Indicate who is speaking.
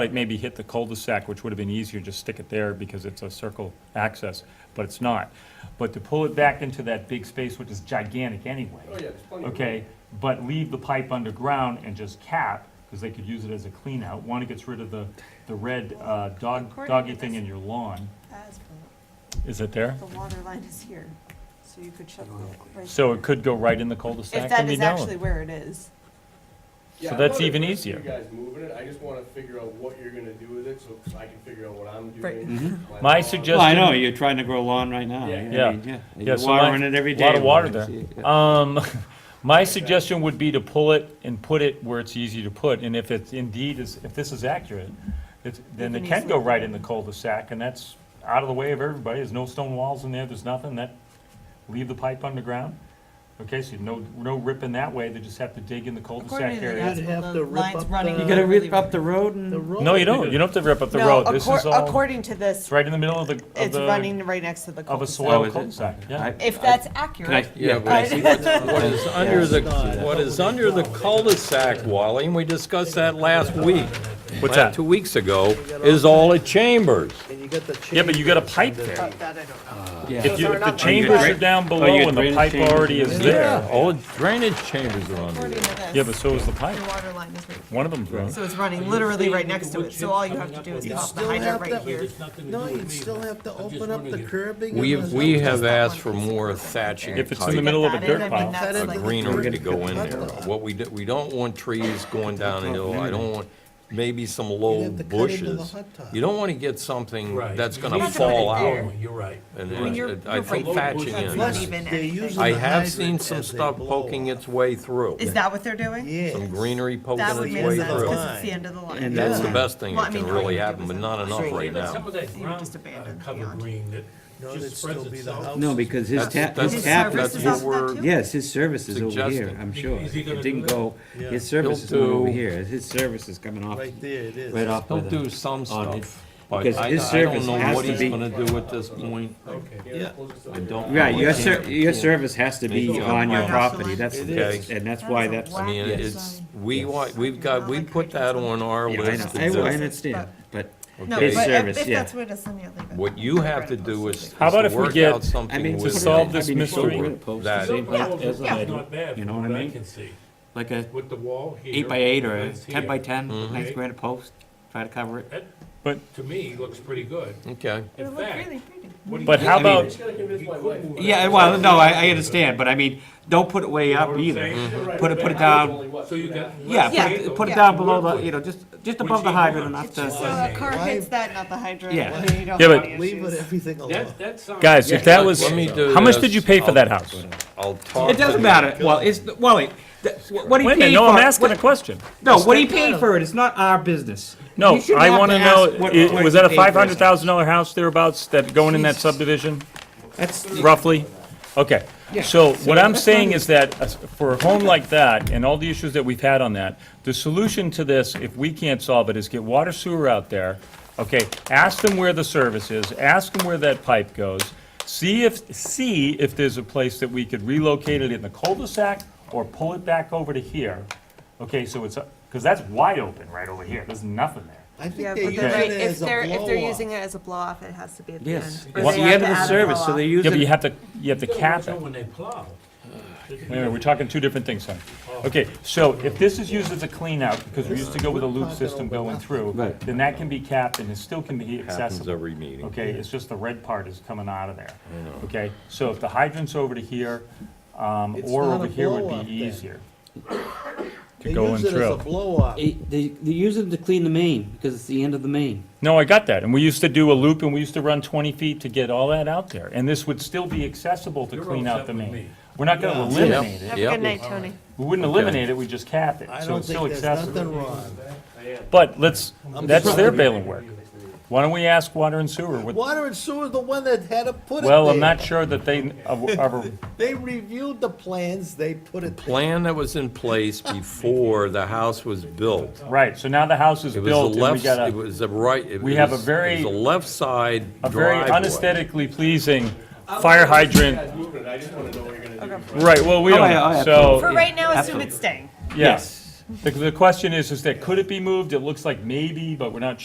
Speaker 1: like maybe hit the cul-de-sac, which would have been easier, just stick it there because it's a circle access, but it's not. But to pull it back into that big space, which is gigantic anyway.
Speaker 2: Oh, yeah, there's plenty of room.
Speaker 1: Okay, but leave the pipe underground and just cap, because they could use it as a clean out. One, it gets rid of the, the red uh, dog,
Speaker 3: According to
Speaker 1: doggy thing
Speaker 3: this-
Speaker 1: in your lawn.
Speaker 3: as per,
Speaker 1: Is it there?
Speaker 3: the water line is here, so you could shut the. right-
Speaker 1: So it could go right in the cul-de-sac
Speaker 3: If
Speaker 1: and
Speaker 3: that
Speaker 1: be
Speaker 3: is
Speaker 1: done.
Speaker 3: actually where it is.
Speaker 2: Yeah,
Speaker 1: So
Speaker 2: I'm
Speaker 1: that's
Speaker 2: not
Speaker 1: even
Speaker 2: adverse to
Speaker 1: easier.
Speaker 2: You guys moving it, I just wanna figure out what you're gonna do with it, so I can figure out what I'm
Speaker 3: Right.
Speaker 2: doing.
Speaker 1: Mm-hmm. My
Speaker 2: lawn.
Speaker 1: suggestion-
Speaker 4: Well, I know, you're trying to grow lawn right now.
Speaker 2: Yeah.
Speaker 4: I mean,
Speaker 1: Yeah. Yeah,
Speaker 4: You're
Speaker 1: so my-
Speaker 4: watering it every day.
Speaker 1: Lot of water
Speaker 4: I see
Speaker 1: there.
Speaker 4: it, yeah.
Speaker 1: Um, my suggestion would be to pull it and put it where it's easy to put, and if it's indeed is, if this is accurate, it's, then it
Speaker 3: can
Speaker 1: can go
Speaker 3: easily-
Speaker 1: right in the cul-de-sac, and that's out of the way of everybody, there's no stone walls in there, there's nothing, that, leave the pipe underground. Okay, so no, no ripping that way, they just have to dig in the
Speaker 3: According
Speaker 1: cul-de-sac
Speaker 3: to the
Speaker 1: area.
Speaker 3: asphalt,
Speaker 5: have
Speaker 3: the
Speaker 5: to rip
Speaker 3: lines
Speaker 5: up
Speaker 3: running.
Speaker 5: the-
Speaker 4: You
Speaker 5: You
Speaker 4: gotta
Speaker 5: gotta
Speaker 4: rip up the road
Speaker 5: The
Speaker 4: and,
Speaker 5: road.
Speaker 1: No, you don't, you don't have to rip up the
Speaker 3: No,
Speaker 1: road, this
Speaker 3: accor-
Speaker 1: is all,
Speaker 3: According to this,
Speaker 1: it's right in the middle of the, of
Speaker 3: it's
Speaker 1: the,
Speaker 3: running right next to the
Speaker 1: of a
Speaker 3: cul-de-sac.
Speaker 4: Oh, is
Speaker 1: soil
Speaker 4: it?
Speaker 1: cul-de-sac, yeah.
Speaker 4: I-
Speaker 3: If that's
Speaker 4: can I,
Speaker 3: accurate,
Speaker 6: Yeah,
Speaker 4: yeah,
Speaker 6: but I see what's- what is under the,
Speaker 5: not.
Speaker 6: what is under the cul-de-sac, Wally, and we discussed that last week.
Speaker 1: What's
Speaker 6: last-
Speaker 1: that?
Speaker 6: Two weeks ago, is all at Chambers.
Speaker 5: And you got the.
Speaker 1: Yeah, but you got a
Speaker 5: chambers
Speaker 1: pipe
Speaker 5: and the-
Speaker 1: there.
Speaker 4: yeah.
Speaker 1: If you,
Speaker 5: So
Speaker 1: if
Speaker 5: they're
Speaker 1: the
Speaker 5: not
Speaker 1: chambers are
Speaker 4: drain-
Speaker 1: down below
Speaker 4: Oh, you got
Speaker 1: and the
Speaker 4: drainage
Speaker 1: pipe
Speaker 4: chambers
Speaker 1: already
Speaker 4: and
Speaker 1: is
Speaker 4: everything?
Speaker 1: there.
Speaker 6: All drainage chambers are under
Speaker 3: according
Speaker 6: there.
Speaker 3: to this.
Speaker 1: Yeah, but so is the pipe.
Speaker 3: Your water line is right here.
Speaker 1: One of them's running.
Speaker 3: So it's running literally right next to it, so all you have to do is pop the
Speaker 5: still
Speaker 3: hydrant
Speaker 5: have
Speaker 3: right
Speaker 5: that-
Speaker 3: here.
Speaker 5: No, you still have to open up the curbing. and
Speaker 6: We,
Speaker 5: the-
Speaker 6: we have asked for more thatching
Speaker 1: If it's in the
Speaker 6: type
Speaker 1: middle of a
Speaker 3: That is,
Speaker 1: dirt
Speaker 3: I mean,
Speaker 1: pile.
Speaker 3: that's
Speaker 6: of
Speaker 3: like-
Speaker 6: greenery to go in there. What we, do- we don't want trees going down a hill, I don't want maybe some
Speaker 5: You'd
Speaker 6: low
Speaker 5: have to cut into the
Speaker 6: bushes.
Speaker 5: hot tub.
Speaker 6: You don't want to get something
Speaker 7: Right.
Speaker 6: that's
Speaker 7: You
Speaker 6: gonna
Speaker 7: need
Speaker 6: fall
Speaker 3: something there.
Speaker 6: out.
Speaker 7: Oh, You're right.
Speaker 6: And
Speaker 3: Well,
Speaker 6: it-
Speaker 3: you're-
Speaker 6: it- I
Speaker 3: you're
Speaker 6: think
Speaker 3: right.
Speaker 6: thatching
Speaker 7: That's
Speaker 3: not
Speaker 6: in. is-
Speaker 5: Plus,
Speaker 3: even
Speaker 5: they're
Speaker 3: anything.
Speaker 5: using
Speaker 6: I
Speaker 5: the
Speaker 6: have
Speaker 5: hydrant
Speaker 6: seen some
Speaker 5: as they
Speaker 6: stuff
Speaker 5: blow
Speaker 6: poking
Speaker 5: up.
Speaker 6: its way through.
Speaker 3: Is that what they're doing?
Speaker 5: Yes.
Speaker 6: Some greenery poking
Speaker 3: That
Speaker 6: its
Speaker 3: would make sense,
Speaker 6: way through.
Speaker 3: because it's the end of the line.
Speaker 4: And
Speaker 6: That's
Speaker 5: Yeah.
Speaker 6: the best thing
Speaker 3: Well, I
Speaker 6: that can
Speaker 3: mean, all
Speaker 6: really
Speaker 3: you do
Speaker 6: happen,
Speaker 3: is
Speaker 6: but not enough
Speaker 3: upgrade
Speaker 6: right
Speaker 3: it.
Speaker 7: Some
Speaker 6: now.
Speaker 7: of that
Speaker 3: You
Speaker 7: ground
Speaker 3: just abandoned
Speaker 7: uh, cover
Speaker 3: beyond.
Speaker 7: green that
Speaker 5: No,
Speaker 7: just
Speaker 5: it'd
Speaker 7: spreads
Speaker 5: still be the
Speaker 7: itself.
Speaker 5: house.
Speaker 4: No, because his
Speaker 6: That's-
Speaker 4: tap,
Speaker 6: that's-
Speaker 3: His
Speaker 4: his tap,
Speaker 3: service
Speaker 6: that's
Speaker 3: is
Speaker 6: what
Speaker 3: off that
Speaker 6: we're-
Speaker 3: too?
Speaker 4: yes, his service is over here,
Speaker 6: Suggesting.
Speaker 4: I'm sure.
Speaker 7: Is he
Speaker 4: It
Speaker 7: gonna
Speaker 4: didn't
Speaker 7: do that?
Speaker 4: go,
Speaker 5: Yeah.
Speaker 4: his service is
Speaker 6: He'll
Speaker 4: not over
Speaker 6: do-
Speaker 4: here, his service is coming off,
Speaker 5: Right there it is.
Speaker 4: right off.
Speaker 6: He'll
Speaker 4: by the-
Speaker 6: do some
Speaker 4: on it.
Speaker 6: stuff, but
Speaker 4: Because
Speaker 6: I,
Speaker 4: his
Speaker 6: I
Speaker 4: service
Speaker 6: don't know
Speaker 4: has
Speaker 6: what
Speaker 4: to
Speaker 6: he's
Speaker 4: be-
Speaker 6: gonna do at this point.
Speaker 5: Yeah.
Speaker 6: I don't.
Speaker 4: Right,
Speaker 6: know.
Speaker 4: your ser, your service has to be
Speaker 6: Maybe
Speaker 4: on your
Speaker 6: I'll-
Speaker 4: property, that's,
Speaker 5: It
Speaker 6: is.
Speaker 4: and that's
Speaker 3: That
Speaker 4: why
Speaker 3: is a
Speaker 4: that's,
Speaker 6: I mean,
Speaker 3: Yes.
Speaker 6: it's, we, want- we've got, we put that on our
Speaker 4: yeah, I
Speaker 6: list.
Speaker 4: know,
Speaker 6: to
Speaker 4: I
Speaker 6: do.
Speaker 4: I understand, but
Speaker 3: No,
Speaker 4: his
Speaker 3: but if-
Speaker 4: service,
Speaker 3: if
Speaker 4: yeah.
Speaker 3: that's what it is, then you leave it.
Speaker 6: What you have to do is is
Speaker 1: How about
Speaker 6: to
Speaker 1: if we
Speaker 6: work
Speaker 1: get-
Speaker 6: out
Speaker 4: I
Speaker 6: something
Speaker 4: mean,
Speaker 6: with.
Speaker 1: to solve
Speaker 6: him
Speaker 1: this
Speaker 4: I mean, it's
Speaker 1: mystery-
Speaker 4: over post,
Speaker 6: that-
Speaker 4: same
Speaker 3: Yeah,
Speaker 4: height as a
Speaker 3: yeah.
Speaker 4: hydrant,
Speaker 7: Not bad,
Speaker 4: You
Speaker 7: from
Speaker 4: know what I
Speaker 7: what I
Speaker 4: mean?
Speaker 7: can see,
Speaker 4: like a
Speaker 7: with the wall here.
Speaker 4: eight by eight or a
Speaker 7: fence
Speaker 4: ten by
Speaker 7: here.
Speaker 4: ten, nice
Speaker 7: Okay.
Speaker 4: granite post, try to cover it.
Speaker 7: That,
Speaker 1: But,
Speaker 7: to me, looks pretty good.
Speaker 6: Okay,
Speaker 3: It
Speaker 7: In
Speaker 3: would look
Speaker 7: fact,
Speaker 3: really pretty.
Speaker 7: what he
Speaker 1: but
Speaker 7: did-
Speaker 1: how
Speaker 4: I mean-
Speaker 1: about,
Speaker 2: Just gotta convince
Speaker 7: he
Speaker 2: my
Speaker 7: could
Speaker 2: wife.
Speaker 7: move it.
Speaker 4: Yeah, well, no, I, I understand, but I mean, don't put it way
Speaker 7: You know
Speaker 4: up
Speaker 7: what I'm
Speaker 4: either.
Speaker 7: saying?
Speaker 2: Right,
Speaker 4: Put it-
Speaker 2: but
Speaker 4: put it
Speaker 2: my
Speaker 4: down.
Speaker 2: house is only, what,
Speaker 7: So
Speaker 2: two
Speaker 7: you
Speaker 2: and a
Speaker 7: got.
Speaker 2: half?
Speaker 4: Yeah,
Speaker 7: less
Speaker 4: put
Speaker 7: space
Speaker 4: it,
Speaker 7: to
Speaker 4: put it
Speaker 7: work
Speaker 4: down below the,
Speaker 7: with.
Speaker 4: you know, just, just
Speaker 7: Which
Speaker 4: above the
Speaker 7: he wants.
Speaker 4: hydrant enough
Speaker 3: It's just so
Speaker 4: to,
Speaker 3: a car
Speaker 5: Why-
Speaker 3: hits that, not the hydrant.
Speaker 4: Yeah.
Speaker 3: and you don't
Speaker 1: Yeah,
Speaker 3: have
Speaker 1: but-
Speaker 3: any
Speaker 5: Leave with
Speaker 3: issues.
Speaker 5: everything alone.
Speaker 7: That, that sounds.
Speaker 1: guys, if that was,
Speaker 6: Let me do
Speaker 1: how much did
Speaker 6: this.
Speaker 1: you pay for
Speaker 6: I'll-
Speaker 1: that house?
Speaker 6: I'll talk.
Speaker 4: it doesn't
Speaker 6: to-
Speaker 4: matter, well, it's, Wally, th- what he
Speaker 1: Wait a
Speaker 4: paid for.
Speaker 1: minute, no, I'm
Speaker 4: it-
Speaker 1: asking
Speaker 4: what-
Speaker 1: a question.
Speaker 4: No, what he paid for it, it's not our business.
Speaker 1: No,
Speaker 4: You shouldn't
Speaker 1: I
Speaker 4: have
Speaker 1: wanna
Speaker 4: to
Speaker 1: know,
Speaker 4: ask what-
Speaker 1: i-
Speaker 4: what
Speaker 1: was
Speaker 4: he
Speaker 1: that a
Speaker 4: paid for it.
Speaker 1: five hundred thousand dollar house thereabouts that going in that
Speaker 4: Jesus.
Speaker 1: subdivision,
Speaker 4: That's,
Speaker 1: roughly? Okay,
Speaker 4: Yeah.
Speaker 1: so what I'm
Speaker 4: that's not
Speaker 1: saying
Speaker 4: even-
Speaker 1: is that uh, for a home like that and all the issues that we've had on that, the solution to this, if we can't solve it, is get water sewer out there. Okay, ask them where the service is, ask them where that pipe goes, see if, see if there's a place that we could relocate it in the cul-de-sac or pull it back over to here. Okay, so it's, because that's wide open right over here, there's nothing there.
Speaker 5: I
Speaker 3: Yeah,
Speaker 5: think they're
Speaker 3: but
Speaker 5: using
Speaker 3: they're
Speaker 5: it
Speaker 3: right,
Speaker 5: as
Speaker 3: if
Speaker 5: a
Speaker 3: they're, if they're
Speaker 5: blow-off.
Speaker 3: using it as a blow-off, it has to be at the end.
Speaker 4: yes,
Speaker 3: or
Speaker 4: it's
Speaker 3: they
Speaker 4: the
Speaker 3: have
Speaker 4: end
Speaker 3: to
Speaker 4: of the
Speaker 3: add a
Speaker 4: service, so
Speaker 3: blow-off.
Speaker 4: they
Speaker 1: Yeah, but you
Speaker 4: use it.
Speaker 1: have to, you have to
Speaker 7: You gotta
Speaker 1: cap
Speaker 7: watch
Speaker 1: it.
Speaker 7: out When they plow.
Speaker 1: Wait a minute, we're talking two different things, son. Okay, so if this is used as a cleanout, because we used to go with a loop system going through,
Speaker 4: Right.
Speaker 1: then that can be capped and it still can be
Speaker 6: Happens
Speaker 1: accessible.
Speaker 6: every meeting.
Speaker 1: Okay, it's just the red part is coming out of there. Okay, so if the hydrant's over to here, um,
Speaker 5: It's
Speaker 1: or
Speaker 5: not
Speaker 1: over
Speaker 5: a
Speaker 1: here would
Speaker 5: blow-up
Speaker 1: be
Speaker 5: then.
Speaker 1: easier.
Speaker 5: They
Speaker 1: go
Speaker 5: use
Speaker 1: in
Speaker 5: it as a
Speaker 1: through.
Speaker 5: blow-off.
Speaker 4: They, they use it to clean the main, because it's the end of the main.
Speaker 1: No, I got that, and we used to do a loop and we used to run twenty feet to get all that out there, and this would still be accessible to
Speaker 7: You're
Speaker 1: clean out the
Speaker 7: upset with me.
Speaker 1: main. We're not gonna
Speaker 5: Yeah.
Speaker 1: eliminate
Speaker 3: Have
Speaker 1: it,
Speaker 3: a
Speaker 6: Yep.
Speaker 3: good night, Tony.
Speaker 1: we wouldn't eliminate it, we just cap it,
Speaker 5: I
Speaker 1: so
Speaker 5: don't
Speaker 1: it's still
Speaker 5: think there's
Speaker 1: accessible.
Speaker 5: nothing wrong.
Speaker 1: But let's,
Speaker 5: I'm
Speaker 1: that's
Speaker 5: surprised.
Speaker 1: their bailing work. Why don't we ask Water and Sewer? what-
Speaker 5: Water and sewer, the one that had to put it
Speaker 1: Well, I'm
Speaker 5: there.
Speaker 1: not sure that they ever, ever-
Speaker 5: They reviewed the plans, they put it there.
Speaker 6: Plan that was in place before the house was built.
Speaker 1: right, so now the house is
Speaker 6: It was
Speaker 1: built and we
Speaker 6: the left,
Speaker 1: got
Speaker 6: it
Speaker 1: a,
Speaker 6: was the right. it
Speaker 1: We have a
Speaker 6: was-
Speaker 1: very-
Speaker 6: It was a left side
Speaker 1: a very
Speaker 6: driveway.
Speaker 1: unesthetically pleasing fire hydrant.
Speaker 2: You guys moving it, I just wanna know what you're gonna do.
Speaker 1: Right, well, we
Speaker 4: Oh, yeah, oh,
Speaker 1: don't,
Speaker 4: yeah,
Speaker 1: so,
Speaker 3: For right now, assume
Speaker 4: Absolutely.
Speaker 3: it's staying.
Speaker 1: yes. The, the question is, is that, could it be moved? It looks like maybe, but we're not